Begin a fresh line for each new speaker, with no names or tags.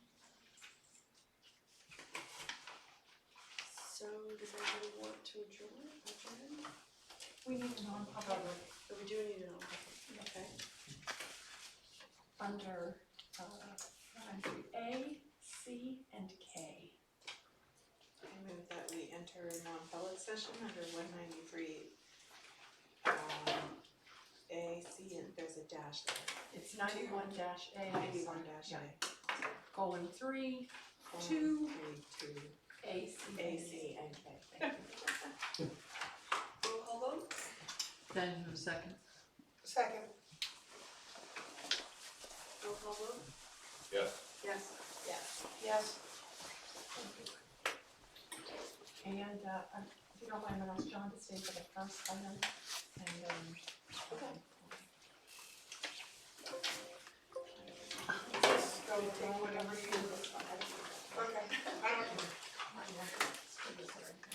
does anybody want to adjourn, adjourn?
We need a non-public
But we do need an alternate, okay?
under, uh, under A, C, and K.
I move that we enter a non-public session under one ninety-three. Um, A, C, and there's a dash there,
It's ninety-one dash A.
ninety-one dash A.
Colon three,
Colon,
Two.
Three, two,
A, C, and
A,
K.
C, and K.
Roll call vote?
Benjamin second.
Second.
Roll call vote?
Yes.
Yes.
Yes.
And, uh, I- if you don't mind, I'm gonna ask John to stay for the first item, and, um.
Go with whatever you.